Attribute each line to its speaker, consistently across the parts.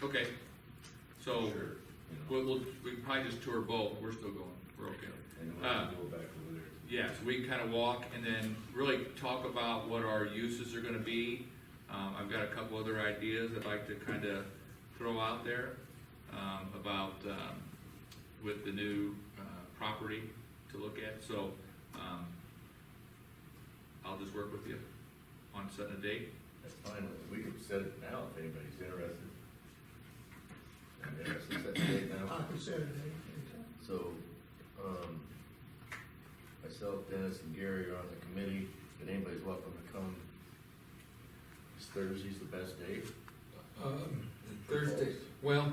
Speaker 1: Okay, so,
Speaker 2: Sure, you know,
Speaker 1: we'll, we'll, we can probably just tour both, we're still going, we're okay.
Speaker 2: And then we
Speaker 1: uh,
Speaker 2: can go back over there.
Speaker 1: Yeah, so we can kind of walk and then really talk about what our uses are gonna be. Um, I've got a couple other ideas I'd like to kind of throw out there, um, about, um, with the new, uh, property to look at, so, um, I'll just work with you on setting a date.
Speaker 2: That's fine, we can set it now if anybody's interested. I'm interested in setting it now.
Speaker 3: I can set it anytime.
Speaker 2: So, um, myself, Dennis, and Gary are on the committee, but anybody's welcome to come. Is Thursday's the best day?
Speaker 4: Um, Thursday, well,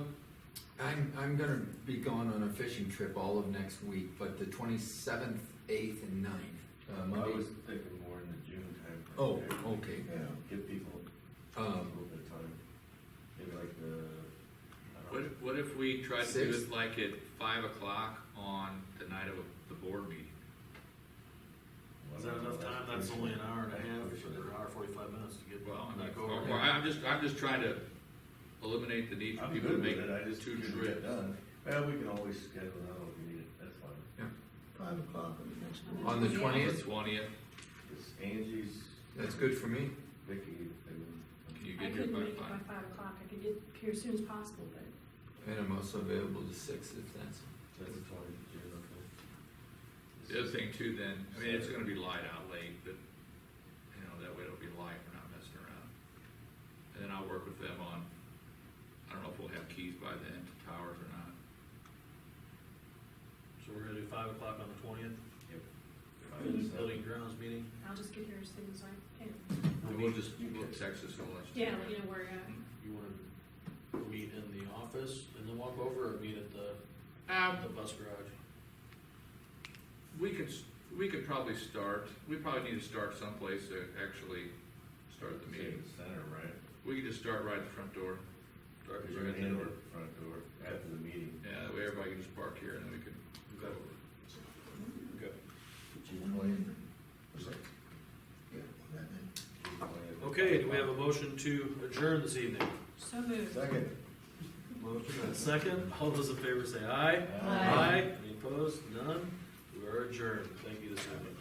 Speaker 4: I'm, I'm gonna be gone on a fishing trip all of next week, but the twenty-seventh, eighth, and ninth. uh,
Speaker 2: Um, I
Speaker 4: Monday-
Speaker 2: was thinking more in the June time.
Speaker 4: Oh, okay,
Speaker 2: Yeah, give people a little
Speaker 4: um,
Speaker 2: bit of time, maybe like the.
Speaker 1: What, what if we try to do
Speaker 4: Six?
Speaker 1: it like at five o'clock on the night of the board meeting?
Speaker 5: Is that enough time? That's only an hour and a half, or an hour forty-five minutes to get
Speaker 1: Well, I mean,
Speaker 5: back over.
Speaker 1: or, or I'm just, I'm just trying to eliminate the need for
Speaker 2: I'm
Speaker 1: people to make
Speaker 2: good with it, I just
Speaker 1: two
Speaker 2: need to
Speaker 1: trips.
Speaker 2: get done. Well, we can always schedule another one if we need it, that's fine.
Speaker 3: Five o'clock on the next one.
Speaker 4: on the twentieth,
Speaker 1: Twentieth,
Speaker 2: It's Angie's,
Speaker 4: that's good for me.
Speaker 2: Vicky, and
Speaker 1: can you get
Speaker 6: I
Speaker 1: here
Speaker 6: couldn't
Speaker 1: by
Speaker 6: make it by
Speaker 1: five?
Speaker 6: five o'clock, I could get here as soon as possible, but
Speaker 4: And I'm also available to six if that's,
Speaker 2: that's the twenty, June, okay.
Speaker 1: The other thing too then, I mean, it's gonna be light out late, but, you know, that way it'll be light, we're not messing around. And then I'll work with them on, I don't know if we'll have keys by then to towers or not.
Speaker 5: So we're gonna do five o'clock on the twentieth, building
Speaker 2: Yep.
Speaker 5: grounds meeting.
Speaker 6: I'll just get here as soon as I can.
Speaker 1: And we'll just, we'll text us, we'll let you.
Speaker 6: Yeah, let you know where uh, you're at.
Speaker 5: You wanna meet in the office and then walk over, or meet at the,
Speaker 1: Um,
Speaker 5: the bus garage?
Speaker 1: We could, s- we could probably start, we probably need to start someplace to actually start the meeting.
Speaker 2: Center, right?
Speaker 1: We could just start right at the front door. Start
Speaker 2: Because
Speaker 1: right
Speaker 2: you're
Speaker 1: at
Speaker 2: gonna
Speaker 1: the
Speaker 2: handle
Speaker 1: door.
Speaker 2: it front door after the meeting.
Speaker 1: Yeah, that way everybody can just park here and then we can go over.
Speaker 2: June twentieth.
Speaker 3: Yeah, that then.
Speaker 5: Okay, do we have a motion to adjourn this evening?
Speaker 6: So moved.
Speaker 2: Second.
Speaker 5: Second, all those in favor say aye.
Speaker 2: Aye.
Speaker 5: Aye. Any opposed? None? We are adjourned. Thank you this evening.